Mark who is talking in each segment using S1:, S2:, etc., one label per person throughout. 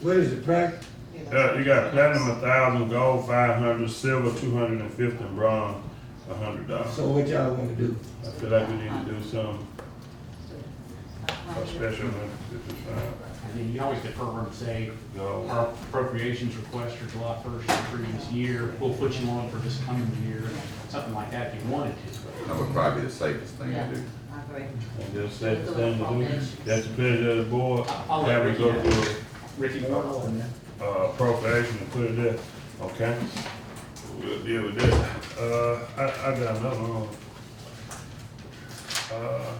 S1: What is the price?
S2: Uh, you got platinum, a thousand, gold, five hundred, silver, two hundred and fifty, and bronze, a hundred dollars.
S1: So what y'all wanna do?
S2: I feel like we need to do something for special, if it's, uh,
S3: And then you always defer and say,
S2: gold.
S3: our appropriations request for July first of the previous year, we'll put you on for this coming year, something like that if you wanted to.
S4: That would probably be the safest thing
S5: Yeah,
S4: to do.
S5: I agree.
S2: And just set the thing to do. That's the pleasure of the board.
S3: I'll let
S2: Have we go
S3: Ricky know.
S2: through
S3: Ricky Wardle and
S2: uh, appropriation and put it there, okay? We'll deal with that. Uh, I, I got another one. Uh,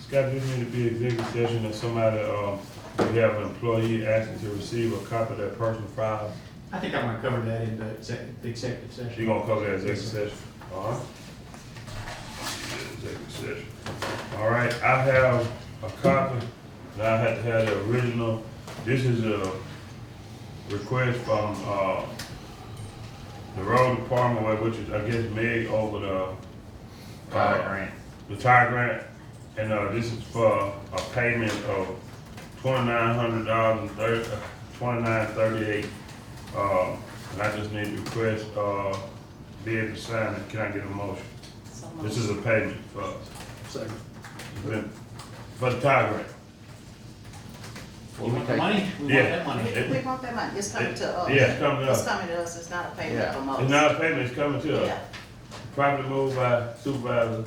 S2: Scott, this need to be executive session if somebody, um, we have an employee asking to receive a copy of their personal file.
S3: I think I'm gonna cover that in the exec- the executive
S2: You
S3: session.
S2: gonna cover that executive session, all right? Executive session. All right, I have a copy, and I had to have the original. This is a request from, uh, the road department, where- which is, I guess, Meg over the.
S4: Tire
S2: grant. The tire grant, and, uh, this is for a payment of twenty-nine hundred dollars and thirty, twenty-nine thirty-eight. Uh, and I just need to request, uh, be able to sign it, can I get a motion? This is a payment for,
S3: So,
S2: for the tire grant.
S3: you want the money? We want
S2: Yeah.
S3: that money.
S2: It-
S5: We want that money, it's coming to us.
S2: Yeah, it's coming to us.
S5: It's coming to us, it's not a payment
S4: Yeah.
S5: from us.
S2: It's not a payment, it's coming to us.
S5: Yeah,
S2: Properly moved by Supervisor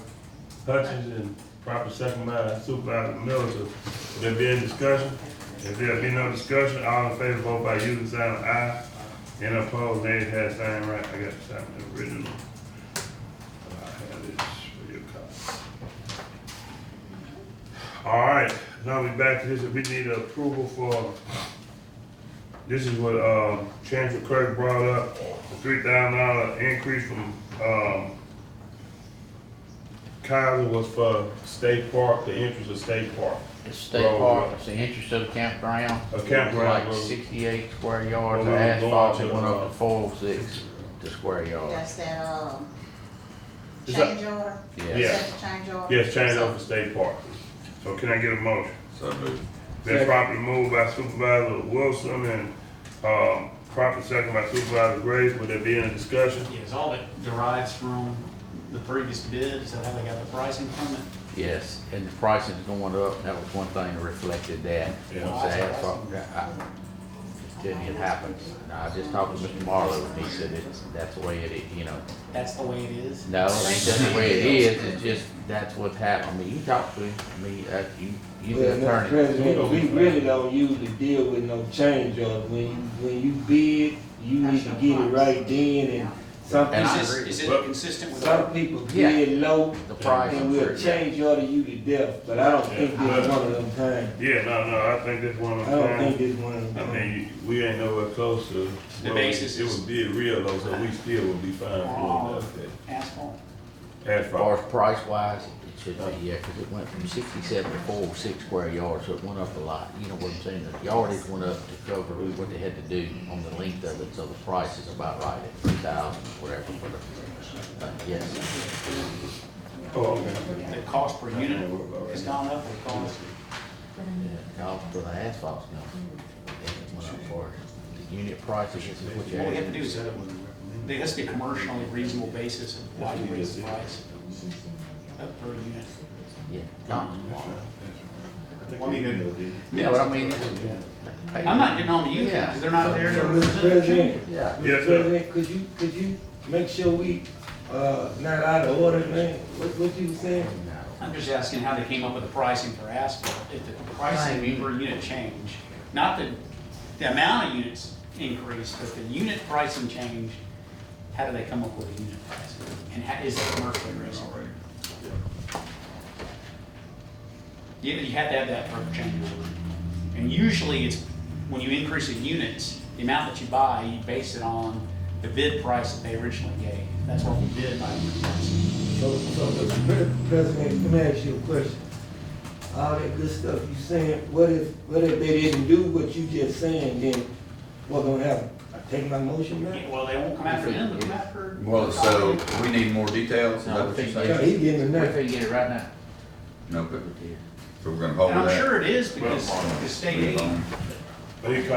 S2: Hutchins and proper second by Supervisor Miller. to- There be any discussion? If there be no discussion, all in favor, vote by using sign of aye. Any opposed, nay, it has sign right. I got to sign the original. I have this for your copy. All right, now we back to this. We need approval for this is what, um, Chancellor Craig brought up, the three thousand dollar increase from, um, Kaiser was for State Park, the interest of State Park.
S6: It's state
S2: Road,
S6: park,
S2: yeah.
S6: it's the entrance of the campground.
S2: A campground,
S6: Like
S2: road.
S6: sixty-eight square yards of
S2: Well, I'm going
S6: asphalt,
S2: to,
S6: it went
S2: uh,
S6: up to four oh six to square yard.
S5: that's that, um,
S2: Is that-
S5: change order?
S6: Yeah.
S2: Yeah.
S5: Is that the change order?
S2: Yes, change
S5: So-
S2: over to State Park. So can I get a motion?
S4: So move.
S2: Been properly moved by Supervisor Wilson and, um, proper second by Supervisor Graves. Would there be any discussion?
S3: Yeah, Is all that derives from the previous bid, is that how they got the pricing from it?
S6: Yes, and the pricing's going up, that was one thing that reflected that.
S2: Yeah.
S6: Once the asphalt, I, it, it happens. And I just talked to Mr. Marlowe, and he said it's, that's the way it, is, you know.
S3: That's the way it is?
S6: No, it's just the way it is, it's just, that's what's happened. I mean, you talked to me, uh, you, you
S1: Well,
S6: the
S1: Mr.
S6: attorney.
S1: President, we really don't usually deal with no change orders. When, when you bid, you need to get it right then and some
S6: And I
S1: people,
S6: agree.
S3: Is it consistent with?
S1: some people bid low
S6: The price.
S1: and we'll change order you to death, but I don't think this
S2: Yeah.
S1: one of them times.
S2: Yeah, no, no, I think that's one of
S1: I
S2: the
S1: don't think
S2: things.
S1: this one of
S2: I
S1: them times.
S2: mean, we ain't nowhere close to.
S3: The basis
S2: It
S3: is-
S2: would be real though, so we still would be fine for that.
S3: Asphalt?
S6: As far
S2: Asphalt.
S6: as price wise, it should be, yeah, because it went from sixty-seven to four oh six square yards, so it went up a lot. You know what I'm saying? The yardage went up to cover what they had to do on the length of it, so the price is about right at three thousand, whatever for the, uh, yes.
S2: Oh, okay.
S3: The cost per unit has gone up, the cost,
S6: Yeah, Cost for the asphalt's gone. It went up for it. the unit prices, this is what you
S3: what we have to
S6: had.
S3: do is, uh, there has to be a commercially reasonable basis of why you raise the price of per unit.
S6: Yeah. not-
S3: Well, I mean,
S6: Yeah, but I mean. it-
S3: I'm not getting on to you, because they're not there
S1: So,
S3: to
S1: Mr.
S3: represent you.
S1: President,
S6: Yeah.
S2: Yes,
S1: Mr.
S2: sir.
S1: President, could you, could you make sure we, uh, not out of order, man? What, what you saying?
S6: No.
S3: I'm just asking how they came up with the pricing for asphalt, if the pricing per unit change, not the, the amount of units increased, but the unit pricing change, how do they come up with a unit pricing? And how, is it commercially reasonable? Yeah, you had to have that for a change order. And usually it's, when you increase in units, the amount that you buy, you base it on the bid price that they originally gave. That's what we did by unit pricing.
S1: So, so, Mr. Pre- President, let me ask you a question. All that good stuff you saying, what if, what if they didn't do what you just saying, then what gonna happen? I take my motion
S3: Yeah,
S1: back?
S3: well, they won't come after him, they'll come after.
S4: Well, so we need more details, is that
S6: No,
S4: what you're
S6: we
S1: Yeah,
S4: saying?
S1: he getting
S6: We're
S1: enough.
S6: gonna get it right now.
S4: No, but,
S6: Yeah.
S4: so we're gonna hold
S3: And I'm
S4: that. um,
S3: sure it is because the state aid
S4: Move on.
S2: He